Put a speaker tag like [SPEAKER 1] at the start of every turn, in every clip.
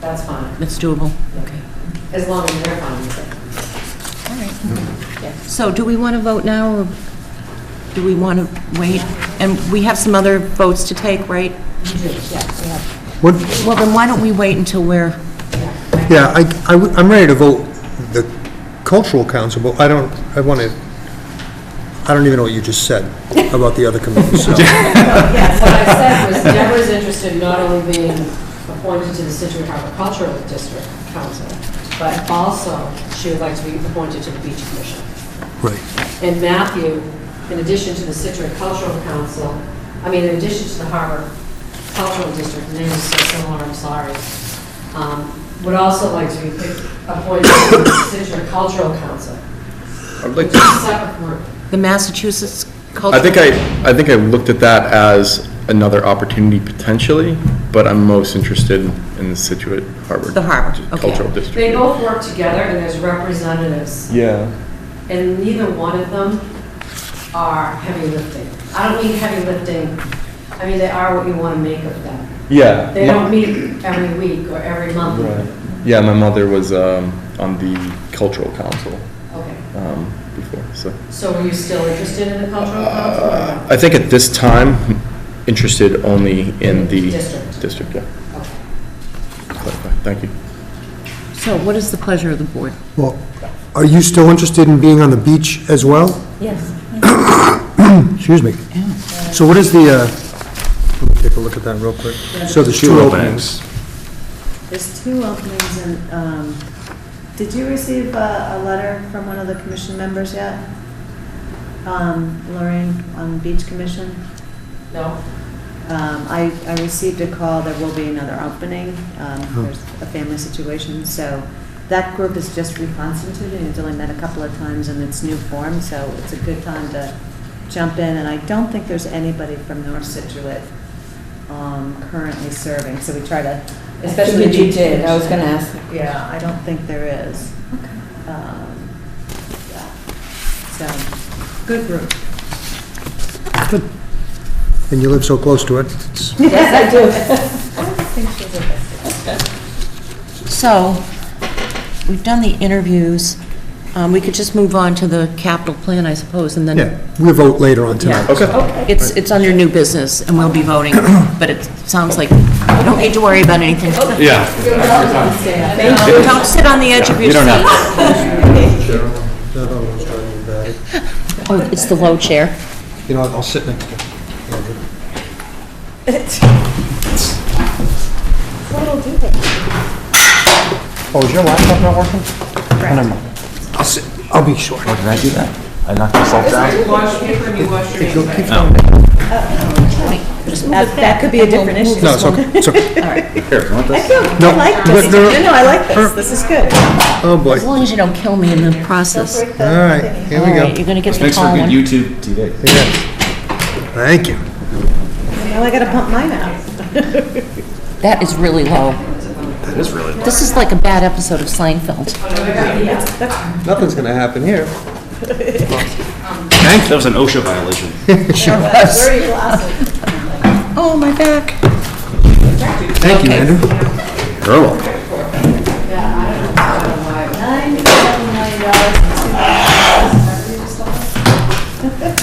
[SPEAKER 1] That's fine,
[SPEAKER 2] That's doable? Okay.
[SPEAKER 1] as long as they're fine with it.
[SPEAKER 2] All right. So do we want to vote now, or do we want to wait? And we have some other votes to take, right?
[SPEAKER 3] What,
[SPEAKER 2] Well, then why don't we wait until we're,
[SPEAKER 3] yeah, I, am ready to vote the cultural council, but I don't, I want to, I don't even know what you just said about the other committees, so.
[SPEAKER 1] Yes, what I said was Deborah's interested in not only being appointed to the Situate Harbor Cultural District Council, but also she would like to be appointed to the Beach Commission.
[SPEAKER 3] Right.
[SPEAKER 1] And Matthew, in addition to the Situate Cultural Council, I mean, in addition to the Harbor Cultural District, names so similar, I'm sorry, um, would also like to be picked- appointed to the Situate Cultural Council,
[SPEAKER 4] I'd
[SPEAKER 1] which
[SPEAKER 4] like
[SPEAKER 1] is
[SPEAKER 4] to,
[SPEAKER 1] a separate group.
[SPEAKER 2] the Massachusetts
[SPEAKER 4] I
[SPEAKER 2] Cultural...
[SPEAKER 4] think I, I think I looked at that as another opportunity potentially, but I'm most interested in the Situate Harbor.
[SPEAKER 2] The Harbor, okay.
[SPEAKER 4] Cultural District.
[SPEAKER 1] They both work together, and there's representatives,
[SPEAKER 4] Yeah,
[SPEAKER 1] and neither one of them are heavy lifting. I don't mean heavy lifting, I mean, they are what you want to make of them.
[SPEAKER 4] yeah.
[SPEAKER 1] They
[SPEAKER 4] my-
[SPEAKER 1] don't meet every week or every month.
[SPEAKER 4] Right. Yeah, my mother was, um, on the cultural council,
[SPEAKER 1] Okay,
[SPEAKER 4] um, before, so.
[SPEAKER 1] so were you still interested in the cultural council? or
[SPEAKER 4] Uh,
[SPEAKER 1] not?
[SPEAKER 4] I think at this time, interested only in the.
[SPEAKER 1] District.
[SPEAKER 4] District, yeah.
[SPEAKER 1] Okay.
[SPEAKER 4] Clarify. Thank you.
[SPEAKER 2] So what is the pleasure of the board?
[SPEAKER 3] Well, are you still interested in being on the beach as well?
[SPEAKER 2] Yes.
[SPEAKER 3] Excuse me. So what is the, uh, let me take a look at that real quick. So there's two openings.
[SPEAKER 5] There's two openings and, um, did you receive a, a letter from one of the commission members yet? Um, Lorraine on Beach Commission?
[SPEAKER 1] No?
[SPEAKER 5] Um, I, I received a call, there will be another opening, um, there's a family situation, so that group is just reconstituted, it's only met a couple of times in its new form, so it's a good time to jump in, and I don't think there's anybody from North Situate, um, currently serving, so we try to, especially.
[SPEAKER 6] Especially you did, I was gonna ask.
[SPEAKER 5] Yeah, I don't think there is. Um, yeah. So, good group.
[SPEAKER 3] And you live so close to it. It's-
[SPEAKER 6] Yes, I do.
[SPEAKER 2] So, we've done the interviews. Um, We could just move on to the capital plan, I suppose, and then...
[SPEAKER 3] Yeah, we'll vote later on tonight.
[SPEAKER 4] Okay.
[SPEAKER 2] It's, it's under new business, and we'll be voting, but it sounds like you don't need to worry about anything.
[SPEAKER 4] Yeah.
[SPEAKER 2] Don't sit on the edge of your
[SPEAKER 4] You
[SPEAKER 2] seat.
[SPEAKER 4] don't have to.
[SPEAKER 3] Not always driving back.
[SPEAKER 2] Oh, it's the low chair.
[SPEAKER 3] You know, I'll sit next to you. Oh, is your laptop not working? Never mind. I'll sit, I'll be short.
[SPEAKER 7] Did I do that? I knocked myself down?
[SPEAKER 5] That that could be a different issue.
[SPEAKER 3] No, it's okay, it's okay.
[SPEAKER 7] Here, you want this?
[SPEAKER 5] I like this.
[SPEAKER 3] No, no, no.
[SPEAKER 5] No, no, I like this. This is good.
[SPEAKER 3] Oh, boy.
[SPEAKER 2] As long as you don't kill me in the process.
[SPEAKER 3] All right, here we
[SPEAKER 2] All
[SPEAKER 3] go.
[SPEAKER 2] right, you're going to get the
[SPEAKER 7] Makes for
[SPEAKER 2] call
[SPEAKER 7] good
[SPEAKER 2] one.
[SPEAKER 7] YouTube TV.
[SPEAKER 3] Thank you.
[SPEAKER 5] Now I gotta pump mine out.
[SPEAKER 2] That is really low.
[SPEAKER 7] That is really low.
[SPEAKER 2] This is like a bad episode of Seinfeld.
[SPEAKER 3] Nothing's gonna happen here.
[SPEAKER 7] That was an OSHA violation.
[SPEAKER 5] Where are your glasses?
[SPEAKER 2] Oh, my back.
[SPEAKER 3] Thank you, Andrew.
[SPEAKER 7] Girl.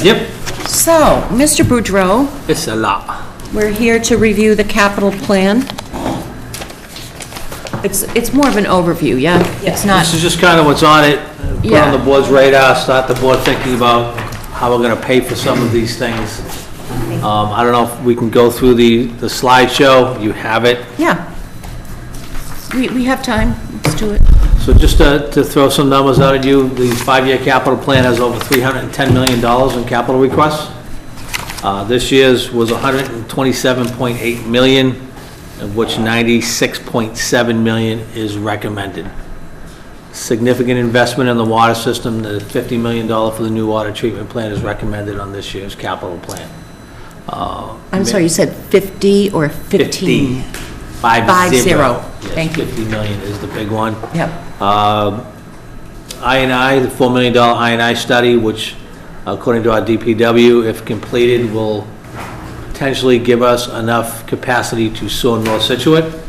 [SPEAKER 7] Yep.
[SPEAKER 2] So, Mr. Boudreau,
[SPEAKER 8] It's a lot.
[SPEAKER 2] we're here to review the capital plan. It's, it's more of an overview, yeah? It's not,
[SPEAKER 8] This is just kind of what's on it, uh, put
[SPEAKER 2] Yeah.
[SPEAKER 8] on the board's radar, start the board thinking about how we're going to pay for some of these things. Um, I don't know if we can go through the, the slideshow, you have it.
[SPEAKER 2] yeah. We, we have time, let's do it.
[SPEAKER 8] So just to, to throw some numbers out at you, the five-year capital plan has over $310 million in capital requests. Uh, This year's was 127.8 million, of which 96.7 million is recommended. Significant investment in the water system, the $50 million for the new water treatment plant is recommended on this year's capital plan. Uh,
[SPEAKER 2] I'm sorry, you said 50 or 15?
[SPEAKER 8] Five
[SPEAKER 2] Five zero.
[SPEAKER 8] zero. Yes,
[SPEAKER 2] Thank you.
[SPEAKER 8] 50 million is the big one.
[SPEAKER 2] Yep,
[SPEAKER 8] INI, the $4 million INI study, which according to our DPW, if completed, will potentially give us enough capacity to sewer North Situate.